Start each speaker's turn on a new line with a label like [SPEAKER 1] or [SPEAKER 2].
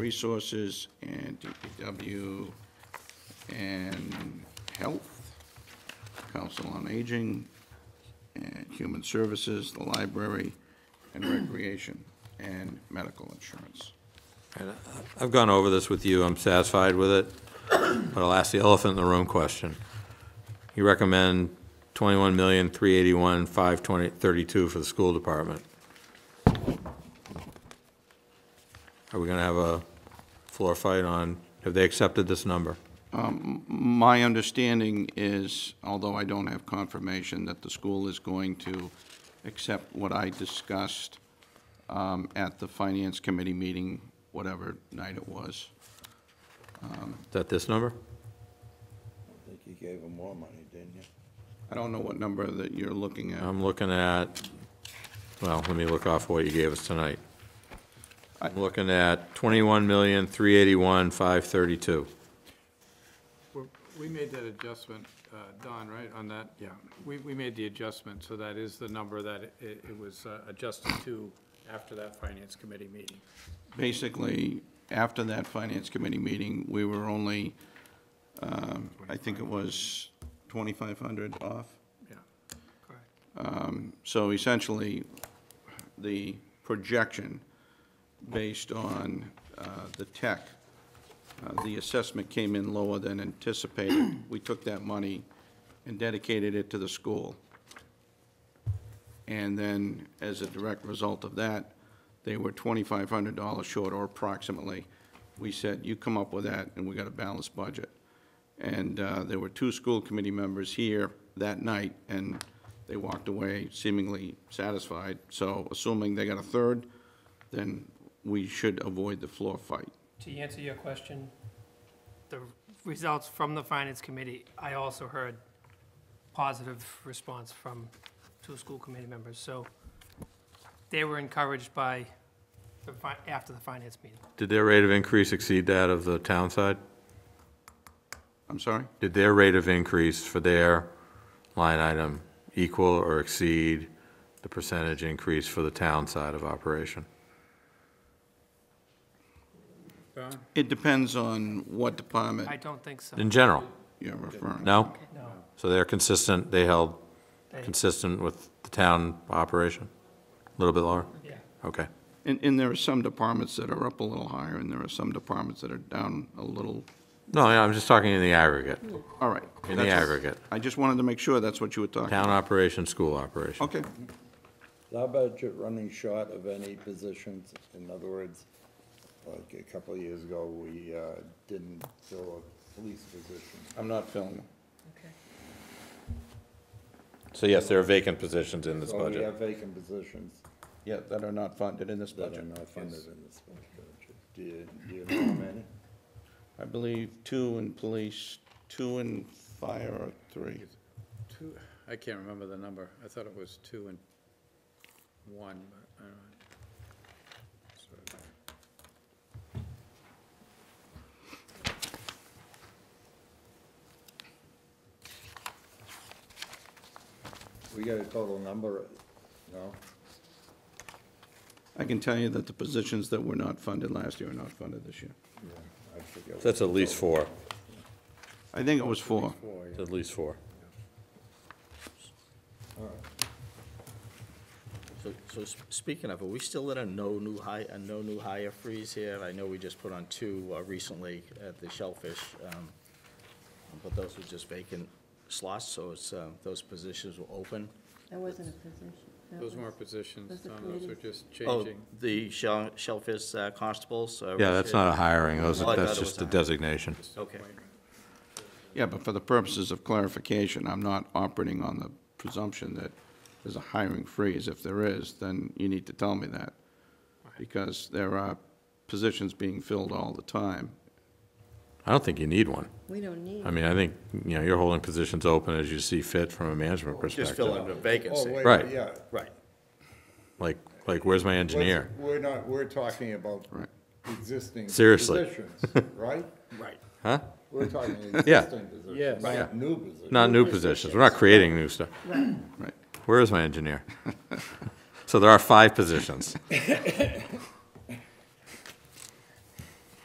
[SPEAKER 1] Resources and DPW and Health, Council on Aging, and Human Services, the Library, and Recreation, and Medical Insurance.
[SPEAKER 2] I've gone over this with you, I'm satisfied with it, but I'll ask the elephant in the room question. You recommend twenty-one million, three eighty-one, five twenty, thirty-two for the school department. Are we gonna have a floor fight on, have they accepted this number?
[SPEAKER 1] My understanding is, although I don't have confirmation, that the school is going to accept what I discussed um, at the Finance Committee meeting, whatever night it was.
[SPEAKER 2] Is that this number?
[SPEAKER 3] I think you gave him more money, didn't you?
[SPEAKER 1] I don't know what number that you're looking at.
[SPEAKER 2] I'm looking at, well, let me look off what you gave us tonight. I'm looking at twenty-one million, three eighty-one, five thirty-two.
[SPEAKER 4] We're- We made that adjustment, uh, Don, right, on that? Yeah. We, we made the adjustment, so that is the number that it, it was uh, adjusted to after that finance committee meeting.
[SPEAKER 1] Basically, after that Finance Committee meeting, we were only, um, I think it was 2,500 off.
[SPEAKER 4] Yeah. Correct.
[SPEAKER 1] So essentially, the projection based on uh, the tech, uh, the assessment came in lower than anticipated. We took that money and dedicated it to the school. And then, as a direct result of that, they were $2,500 short, or approximately. We said, you come up with that, and we got a balanced budget. And uh, there were two school committee members here that night, and they walked away seemingly satisfied. So assuming they got a third, then we should avoid the floor fight.
[SPEAKER 5] To answer your question, the results from the finance committee, I also heard positive response from two school committee members, so they were encouraged by, the fi- after the finance meeting.
[SPEAKER 2] Did their rate of increase exceed that of the town side?
[SPEAKER 1] I'm sorry?
[SPEAKER 2] Did their rate of increase for their line item equal or exceed the percentage increase for the town side of operation?
[SPEAKER 4] Don?
[SPEAKER 1] It depends on what department
[SPEAKER 5] I don't think so,
[SPEAKER 2] In general,
[SPEAKER 1] you're referring.
[SPEAKER 2] no?
[SPEAKER 5] no.
[SPEAKER 2] So they're consistent, they held
[SPEAKER 5] They-
[SPEAKER 2] consistent with the town operation? A little bit lower?
[SPEAKER 5] Yeah.
[SPEAKER 2] Okay.
[SPEAKER 1] And, and there are some departments that are up a little higher, and there are some departments that are down a little,
[SPEAKER 2] No, yeah, I'm just talking in the aggregate,
[SPEAKER 1] all right.
[SPEAKER 2] in the
[SPEAKER 1] That's-
[SPEAKER 2] aggregate.
[SPEAKER 1] I just wanted to make sure that's what you were talking
[SPEAKER 2] Town
[SPEAKER 1] about.
[SPEAKER 2] operation, school operation.
[SPEAKER 1] Okay,
[SPEAKER 3] Is our budget running short of any positions? In other words, like a couple of years ago, we uh, didn't fill a police position.
[SPEAKER 1] I'm not filling them.
[SPEAKER 2] So yes, there are vacant positions in this
[SPEAKER 3] So we
[SPEAKER 2] budget.
[SPEAKER 3] have vacant positions
[SPEAKER 1] Yeah, that are not funded in this
[SPEAKER 3] that are
[SPEAKER 1] budget.
[SPEAKER 3] not funded in this budget. Do you, do you know how many?
[SPEAKER 1] I believe two in police, two in fire, or three.
[SPEAKER 4] Two, I can't remember the number. I thought it was two and one, but I don't know.
[SPEAKER 3] We got a total number, no?
[SPEAKER 1] I can tell you that the positions that were not funded last year are not funded this year.
[SPEAKER 3] Yeah, I forget. what
[SPEAKER 2] That's
[SPEAKER 3] the
[SPEAKER 2] at least
[SPEAKER 3] total-
[SPEAKER 2] four,
[SPEAKER 1] I think it was four.
[SPEAKER 4] Four, yeah.
[SPEAKER 2] at least four.
[SPEAKER 6] So, so s- speaking of, are we still in a no new hi, a no new hire freeze here? I know we just put on two uh, recently at the Shellfish, um, but those were just vacant slots, so it's, uh, those positions were open.
[SPEAKER 7] That wasn't a position. That
[SPEAKER 4] Those
[SPEAKER 7] was-
[SPEAKER 4] weren't positions,
[SPEAKER 7] Those are
[SPEAKER 4] Don, those are
[SPEAKER 7] committees.
[SPEAKER 4] just
[SPEAKER 6] Oh,
[SPEAKER 4] changing.
[SPEAKER 6] the Shell, Shellfish uh, constables? uh,
[SPEAKER 2] Yeah, that's not a hiring, those-
[SPEAKER 6] Oh, I thought
[SPEAKER 2] that's
[SPEAKER 6] it
[SPEAKER 2] just
[SPEAKER 6] was
[SPEAKER 2] a
[SPEAKER 6] a-
[SPEAKER 2] designation.
[SPEAKER 6] Okay,
[SPEAKER 1] Yeah, but for the purposes of clarification, I'm not operating on the presumption that there's a hiring freeze. If there is, then you need to tell me that, because there are positions being filled all the time.
[SPEAKER 2] I don't think you need one.
[SPEAKER 7] We don't need.
[SPEAKER 2] I mean, I think, you know, you're holding positions open as you see fit from a management
[SPEAKER 6] just fill
[SPEAKER 2] perspective.
[SPEAKER 6] in the
[SPEAKER 3] Oh,
[SPEAKER 6] vacancy.
[SPEAKER 3] wait,
[SPEAKER 2] Right.
[SPEAKER 3] yeah.
[SPEAKER 6] Right.
[SPEAKER 2] Like, like, where's my engineer?
[SPEAKER 3] We're not, we're talking about
[SPEAKER 1] Right.
[SPEAKER 3] existing
[SPEAKER 2] Seriously.
[SPEAKER 3] positions, right?
[SPEAKER 6] Right.
[SPEAKER 2] Huh?
[SPEAKER 3] We're talking
[SPEAKER 2] Yeah.
[SPEAKER 3] existing positions, not new positions.
[SPEAKER 2] Not new positions. We're not creating new stuff.
[SPEAKER 1] Right.
[SPEAKER 2] Where is my engineer? So there are five positions.